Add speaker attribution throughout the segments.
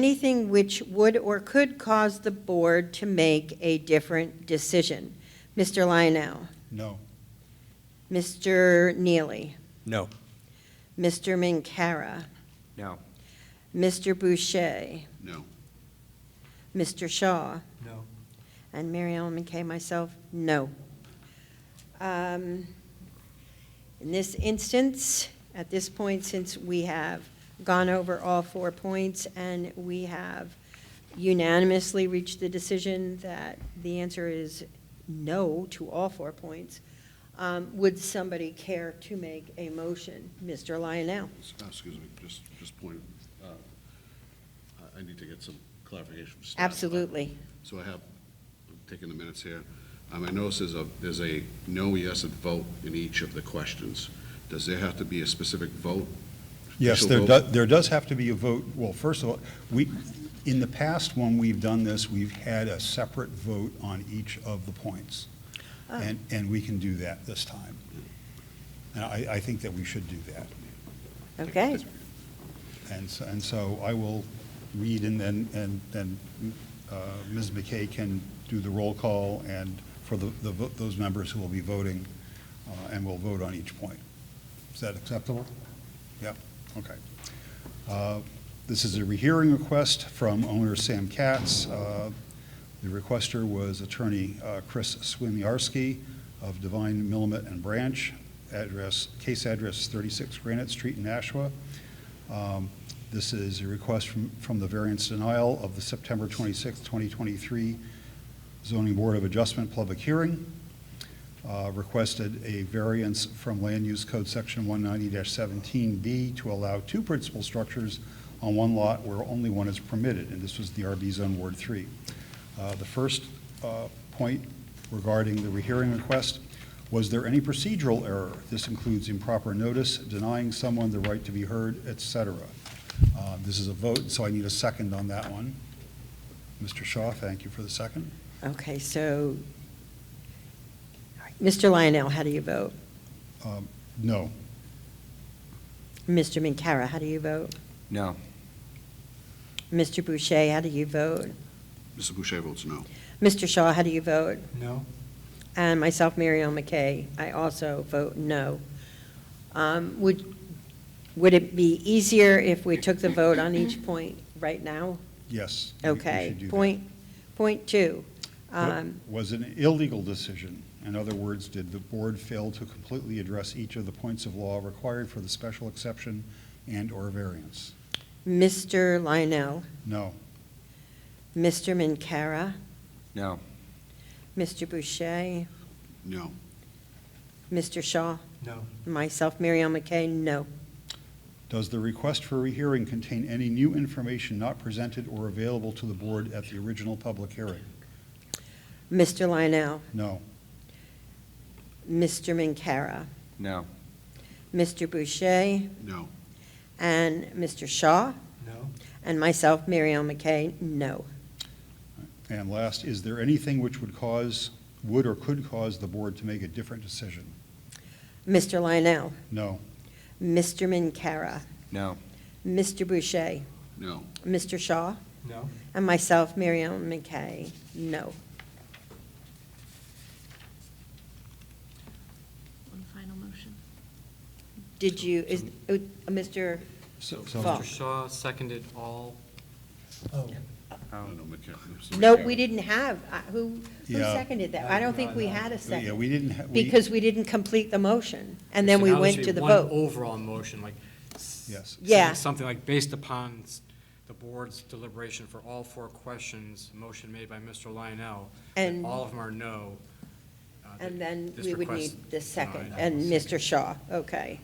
Speaker 1: anything which would or could cause the board to make a different decision. Mr. Lionel,
Speaker 2: No.
Speaker 1: Mr. Neely,
Speaker 3: No.
Speaker 1: Mr. Minkara,
Speaker 3: No.
Speaker 1: Mr. Boucher,
Speaker 2: No.
Speaker 1: Mr. Shaw,
Speaker 3: No.
Speaker 1: and Mary Ellen McKay, myself, no. Um, In this instance, at this point, since we have gone over all four points and we have unanimously reached the decision that the answer is no to all four points, um, would somebody care to make a motion? Mr. Lionel?
Speaker 4: Excuse me, just, just point, uh, I- I need to get some clarification from staff.
Speaker 1: Absolutely.
Speaker 4: So I have, I'm taking the minutes here. Um, I notice there's a, there's a no, yes, and vote in each of the questions. Does there have to be a specific vote?
Speaker 2: Yes,
Speaker 4: Official
Speaker 2: there
Speaker 4: vote?
Speaker 2: does, there does have to be a vote. Well, first of all, we, in the past, when we've done this, we've had a separate vote on each of the points.
Speaker 1: Oh.
Speaker 2: And, and we can do that this time. And I, I think that we should do that.
Speaker 1: Okay.
Speaker 2: And, so- and so I will read and then, and then uh, Ms. McKay can do the roll call and for the, the vo- those members who will be voting, uh, and we'll vote on each point. Is that acceptable? Yep, okay. Uh, This is a rehearing request from owner Sam Katz. Uh, The requester was attorney uh, Chris Swimiarski of Divine Millamette and Branch, address, case address 36 Granite Street in Nashua. Um, This is a request from, from the variance denial of the September 26, 2023 zoning board of adjustment public hearing. Uh, Requested a variance from land use code section 190-17B to allow two principal structures on one lot where only one is permitted, and this was the RB Zone Ward 3. Uh, The first uh, point regarding the rehearing request, was there any procedural error? This includes improper notice, denying someone the right to be heard, et cetera. Uh, This is a vote, so I need a second on that one. Mr. Shaw, thank you for the second.
Speaker 1: Okay, so, all right. Mr. Lionel, how do you vote?
Speaker 2: Um, No.
Speaker 1: Mr. Minkara, how do you vote?
Speaker 3: No.
Speaker 1: Mr. Boucher, how do you vote?
Speaker 4: Mr. Boucher votes no.
Speaker 1: Mr. Shaw, how do you vote?
Speaker 3: No.
Speaker 1: And myself, Mary Ellen McKay, I also vote no. Um, Would, would it be easier if we took the vote on each point right now?
Speaker 2: Yes. we- we
Speaker 1: Okay.
Speaker 2: should do that.
Speaker 1: Point, point two. um,
Speaker 2: Was an illegal decision. In other words, did the board fail to completely address each of the points of law required for the special exception and/or variance?
Speaker 1: Mr. Lionel,
Speaker 2: No.
Speaker 1: Mr. Minkara,
Speaker 3: No.
Speaker 1: Mr. Boucher,
Speaker 4: No.
Speaker 1: Mr. Shaw,
Speaker 3: No.
Speaker 1: myself, Mary Ellen McKay, no.
Speaker 2: Does the request for rehearing contain any new information not presented or available to the board at the original public hearing?
Speaker 1: Mr. Lionel,
Speaker 2: No.
Speaker 1: Mr. Minkara,
Speaker 3: No.
Speaker 1: Mr. Boucher,
Speaker 4: No.
Speaker 1: and Mr. Shaw,
Speaker 3: No.
Speaker 1: and myself, Mary Ellen McKay, no.
Speaker 2: And last, is there anything which would cause, would or could cause the board to make a different decision?
Speaker 1: Mr. Lionel,
Speaker 2: No.
Speaker 1: Mr. Minkara,
Speaker 3: No.
Speaker 1: Mr. Boucher,
Speaker 4: No.
Speaker 1: Mr. Shaw,
Speaker 3: No.
Speaker 1: and myself, Mary Ellen McKay, no.
Speaker 5: One final motion.
Speaker 1: Did you, is, uh, Mr.,
Speaker 2: So- so-
Speaker 1: Fall.
Speaker 6: Mr. Shaw seconded all,
Speaker 4: No, no, McCa- Mr.
Speaker 1: no,
Speaker 4: McCarron.
Speaker 1: we didn't have, uh, who, who
Speaker 2: Yeah.
Speaker 1: seconded that? I don't think we had a
Speaker 2: uh, Yeah,
Speaker 1: second,
Speaker 2: we didn't. ha- we-
Speaker 1: because we didn't complete the motion, and
Speaker 6: So
Speaker 1: then we
Speaker 6: now there
Speaker 1: went
Speaker 6: should
Speaker 1: to
Speaker 6: be
Speaker 1: the
Speaker 6: one
Speaker 1: vote.
Speaker 6: Overall motion, like. s-
Speaker 2: Yes.
Speaker 1: Yeah.
Speaker 6: Something like based upon s- the board's deliberation for all four questions, motion made by Mr. Lionel. that
Speaker 1: And-
Speaker 6: All of them are no. uh,
Speaker 1: And
Speaker 6: that
Speaker 1: then
Speaker 6: this
Speaker 1: we would
Speaker 6: request
Speaker 1: need the second,
Speaker 6: denied.
Speaker 1: and Mr. Shaw, okay.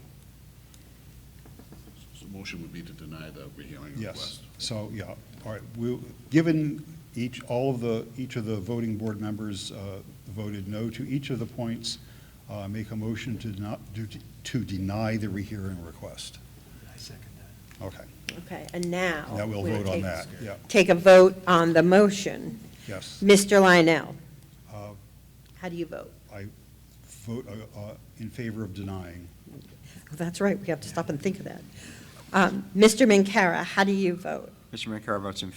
Speaker 4: So the motion would be to deny the rehearing
Speaker 2: Yes,
Speaker 4: request.
Speaker 2: so, yeah, all right, we, given each, all of the, each of the voting board members uh, voted no to each of the points, uh, make a motion to not, do- to deny the rehearing request. I second that. Okay,
Speaker 1: Okay, and now.
Speaker 2: now we'll
Speaker 1: we'll
Speaker 2: vote on
Speaker 1: take-
Speaker 2: that, yeah,
Speaker 1: Take a vote on the motion.
Speaker 2: yes.
Speaker 1: Mr. Lionel,
Speaker 2: Uh,
Speaker 1: how do you vote?
Speaker 2: I vote uh, uh, in favor of denying.
Speaker 1: That's right, we have to stop and think of that. Um, Mr. Minkara, how do you vote?
Speaker 3: Mr. McCarr votes in